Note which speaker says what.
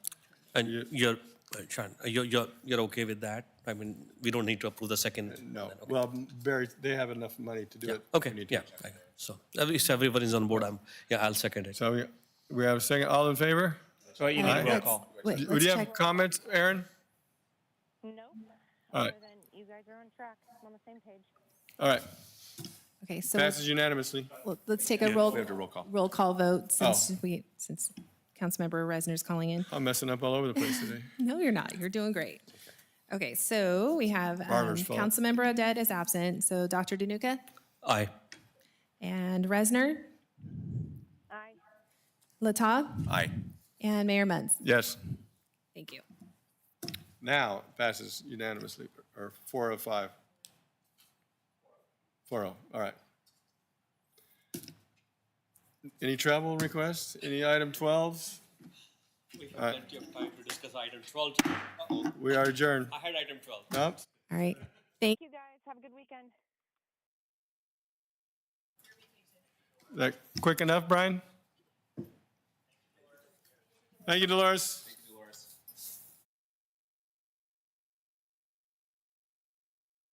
Speaker 1: And you're, uh, Sean, uh, you're, you're, you're okay with that? I mean, we don't need to approve the second?
Speaker 2: No,
Speaker 1: then, okay.
Speaker 2: well, Barry, they have enough money to do
Speaker 1: Yeah,
Speaker 2: it.
Speaker 1: Okay,
Speaker 2: Uh, We need to-
Speaker 1: yeah, I- so, at least everyone is on board, I'm, yeah, I'll second it.
Speaker 2: So we, we have a second, all in favor?
Speaker 3: So you need roll
Speaker 4: Let's-
Speaker 3: call.
Speaker 4: Wait,
Speaker 2: Would
Speaker 4: let's
Speaker 2: you have
Speaker 4: check.
Speaker 2: comments, Aaron?
Speaker 5: Nope.
Speaker 2: All right.
Speaker 5: Other than you guys are on track. I'm on the same page.
Speaker 2: All right,
Speaker 4: Okay, so let's-
Speaker 2: passes unanimously.
Speaker 4: well, let's take a roll,
Speaker 3: we have to roll call. Oh.
Speaker 4: roll call vote since we, since Councilmember Reisner's calling in.
Speaker 2: I'm messing up all over the place today.
Speaker 4: No, you're not. You're doing great. Okay, so we have um,
Speaker 2: Barber's fault.
Speaker 4: Councilmember Odette is absent, so Dr. Danuka
Speaker 1: Aye,
Speaker 4: and Reisner,
Speaker 5: Aye.
Speaker 4: Latav,
Speaker 3: Aye.
Speaker 4: and Mayor Munz.
Speaker 2: Yes,
Speaker 4: Thank you.
Speaker 2: now passes unanimously, or four of five. Four oh, all right. Any travel requests? Any item 12?
Speaker 1: We have
Speaker 2: Aye.
Speaker 1: plenty of time to discuss item 12.
Speaker 2: We are adjourned.
Speaker 1: I had item 12.
Speaker 2: Nope.
Speaker 4: All right. Thank
Speaker 5: You guys have a good weekend.
Speaker 2: Is that quick enough, Brian? Thank you, Dolores.